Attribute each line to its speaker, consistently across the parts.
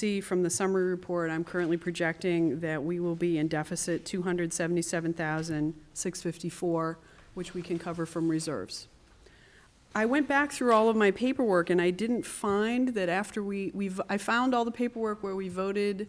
Speaker 1: see from the summary report, I'm currently projecting that we will be in deficit 277,654, which we can cover from reserves. I went back through all of my paperwork, and I didn't find that after we, we've, I found all the paperwork where we voted,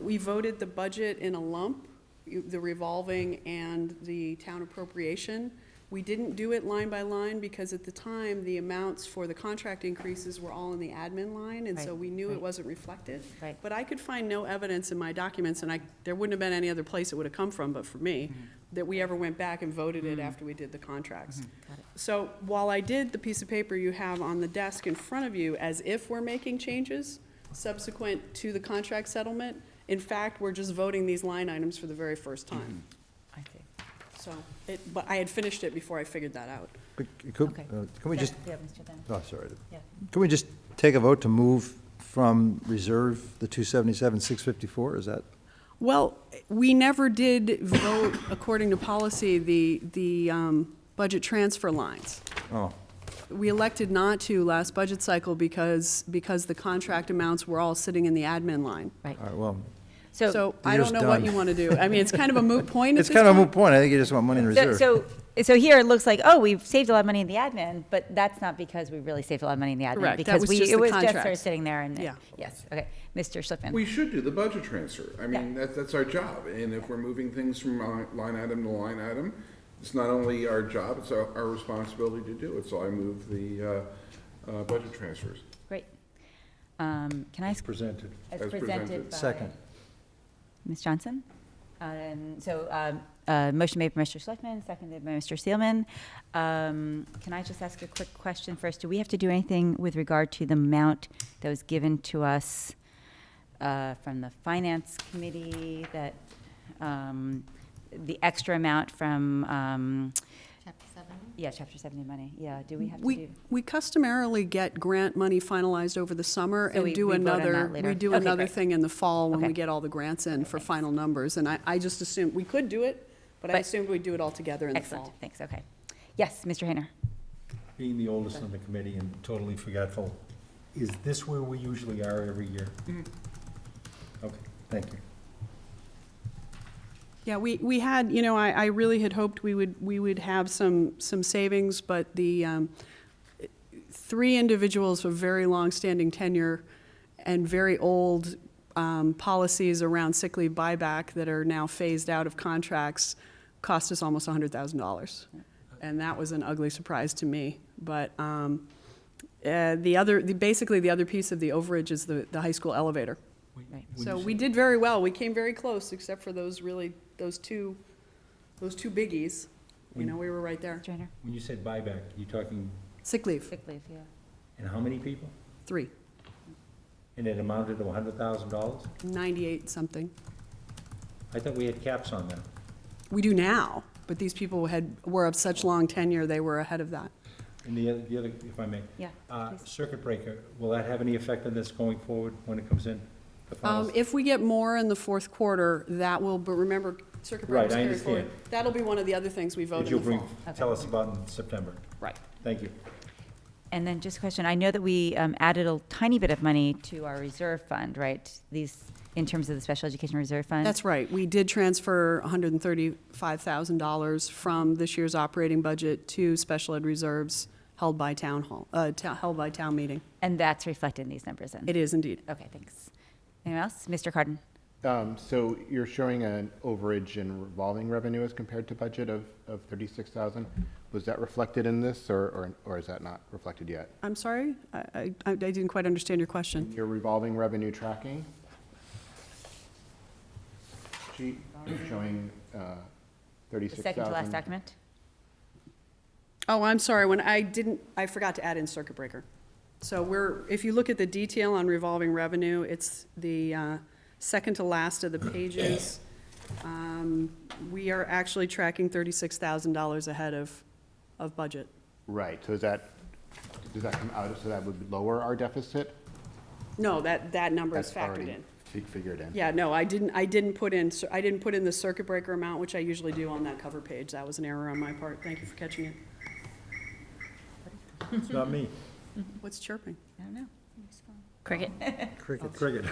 Speaker 1: we voted the budget in a lump, you- the revolving and the town appropriation. We didn't do it line by line, because at the time, the amounts for the contract increases were all in the admin line, and so
Speaker 2: Right,
Speaker 1: we knew it
Speaker 2: right.
Speaker 1: wasn't reflected.
Speaker 2: Right.
Speaker 1: But I could find no evidence in my documents, and I, there wouldn't have been any other place it would have come from but for me, that we ever went back and voted it after we did the contracts.
Speaker 2: Got it.
Speaker 1: So while I did the piece of paper you have on the desk in front of you, as if we're making changes subsequent to the contract settlement, in fact, we're just voting these line items for the very first time.
Speaker 2: I see.
Speaker 1: So, it, but I had finished it before I figured that out.
Speaker 3: But Could,
Speaker 2: Okay.
Speaker 3: uh, can we just,
Speaker 2: Yeah, Mr. Dunn.
Speaker 3: oh, sorry.
Speaker 2: Yeah.
Speaker 3: Can we just take a vote to move from reserve the 277, 654? Is that,
Speaker 1: Well, we never did vote, according to policy, the, the, um, budget transfer lines.
Speaker 3: oh,
Speaker 1: We elected not to last budget cycle because, because the contract amounts were all sitting in the admin line.
Speaker 2: Right.
Speaker 3: all right, well,
Speaker 2: So,
Speaker 1: So I don't
Speaker 3: Year's
Speaker 1: know what
Speaker 3: done.
Speaker 1: you want to do. I mean, it's kind of a moot point at
Speaker 3: it's
Speaker 1: this
Speaker 3: kind of a
Speaker 1: point.
Speaker 3: moot point. I think you just want money in
Speaker 2: so,
Speaker 3: reserve.
Speaker 2: so so here it looks like, oh, we've saved a lot of money in the admin, but that's not because we really saved a lot of money in the admin.
Speaker 1: Correct. That
Speaker 2: Because
Speaker 1: was
Speaker 2: we,
Speaker 1: just
Speaker 2: it
Speaker 1: the
Speaker 2: was just sort of
Speaker 1: contracts.
Speaker 2: sitting there and,
Speaker 1: Yeah.
Speaker 2: yes, okay. Mr. Schlickman.
Speaker 4: We should do the budget transfer. I mean,
Speaker 2: Yeah.
Speaker 4: that's, that's our job. And if we're moving things from li- line item to line item, it's not only our job, it's our, our responsibility to do it. So I move the, uh, uh, budget transfers.
Speaker 2: Great. Um, Can I, ask-
Speaker 3: Presented.
Speaker 2: as
Speaker 4: as
Speaker 2: presented
Speaker 4: presented.
Speaker 2: by.
Speaker 3: Second.
Speaker 2: Ms. Johnson? Um, So, um, uh, motion made by Mr. Schlickman, seconded by Mr. Seelman. Um, Can I just ask a quick question first? Do we have to do anything with regard to the amount that was given to us uh, from the Finance Committee, that, um, the extra amount from, um,
Speaker 5: Chapter seven.
Speaker 2: yeah, Chapter 70 money? Yeah, do we have to do?
Speaker 1: We, we customarily get grant money finalized over the summer
Speaker 2: So we-
Speaker 1: and do
Speaker 2: we vote on
Speaker 1: another,
Speaker 2: that later.
Speaker 1: we do
Speaker 2: Okay,
Speaker 1: another
Speaker 2: great.
Speaker 1: thing in the fall when we
Speaker 2: Okay.
Speaker 1: get all the grants in for final numbers. And I, I just assumed, we could do it, but I
Speaker 2: But-
Speaker 1: assumed we'd do it all together in the
Speaker 2: Excellent,
Speaker 1: fall.
Speaker 2: thanks, okay. Yes, Mr. Hayner?
Speaker 6: Being the oldest on the committee and totally forgetful, is this where we usually are every year?
Speaker 2: Mm-hmm.
Speaker 6: Okay, thank you.
Speaker 1: Yeah, we, we had, you know, I, I really had hoped we would, we would have some, some savings, but the, um, three individuals with very long-standing tenure and very old um, policies around sick leave buyback that are now phased out of contracts cost us almost $100,000. And that was an ugly surprise to me. But um, uh, the other, the- basically, the other piece of the overage is the, the high school elevator.
Speaker 2: Right.
Speaker 1: So we did very well. We came very close, except for those really, those two, those two biggies. You know, we were right there.
Speaker 2: Mr. Hayner?
Speaker 6: When you said buyback, you talking,
Speaker 1: Sick leave,
Speaker 2: Sick leave, yeah.
Speaker 6: and how many people?
Speaker 1: three,
Speaker 6: And it amounted to hundred thousand dollars?
Speaker 1: 98 something.
Speaker 6: I thought we had caps on that.
Speaker 1: We do now, but these people had, were of such long tenure, they were ahead of that.
Speaker 6: And the other, the other, if I may.
Speaker 2: Yeah,
Speaker 6: Uh,
Speaker 2: please.
Speaker 6: circuit breaker, will that have any effect on this going forward when it comes in? the
Speaker 1: Um,
Speaker 6: files?
Speaker 1: If we get more in the fourth quarter, that will, but remember, circuit
Speaker 6: Right,
Speaker 1: breaker's
Speaker 6: I
Speaker 1: carried forward.
Speaker 6: understand.
Speaker 1: That'll be one of the other things we vote
Speaker 6: That
Speaker 1: in
Speaker 6: you'll
Speaker 1: the
Speaker 6: bring,
Speaker 1: fall.
Speaker 6: tell us about in September.
Speaker 1: Right.
Speaker 6: Thank you.
Speaker 2: And then just a question, I know that we um, added a tiny bit of money to our reserve fund, right? These, in terms of the special education reserve fund?
Speaker 1: That's right. We did transfer $135,000 from this year's operating budget to special ed reserves held by town hall, uh, to- held by town meeting.
Speaker 2: And that's reflected in these numbers then?
Speaker 1: It is indeed.
Speaker 2: Okay, thanks. Anyone else? Mr. Cardin?
Speaker 7: Um, So you're showing an overage in revolving revenue as compared to budget of, of 36,000. Was that reflected in this, or, or- or is that not reflected yet?
Speaker 1: I'm sorry? I, I- I didn't quite understand your question.
Speaker 7: Your revolving revenue tracking sheet is showing uh,
Speaker 2: The second to last
Speaker 7: 36,000.
Speaker 2: document?
Speaker 1: Oh, I'm sorry, when I didn't, I forgot to add in circuit breaker. So we're, if you look at the detail on revolving revenue, it's the uh, second to last of the pages. Um, We are actually tracking $36,000 ahead of, of budget.
Speaker 7: Right, so is that, does that come out, so that would lower our deficit?
Speaker 1: No, that, that number is
Speaker 7: That's
Speaker 1: factored
Speaker 7: already
Speaker 1: in.
Speaker 7: fi- Figured in.
Speaker 1: Yeah, no, I didn't, I didn't put in, cir- I didn't put in the circuit breaker amount, which I usually do on that cover page. That was an error on my part. Thank you for catching it.
Speaker 6: It's not me.
Speaker 1: What's chirping?
Speaker 2: I don't know.
Speaker 5: Cricket.
Speaker 3: Cricket.
Speaker 6: Cricket.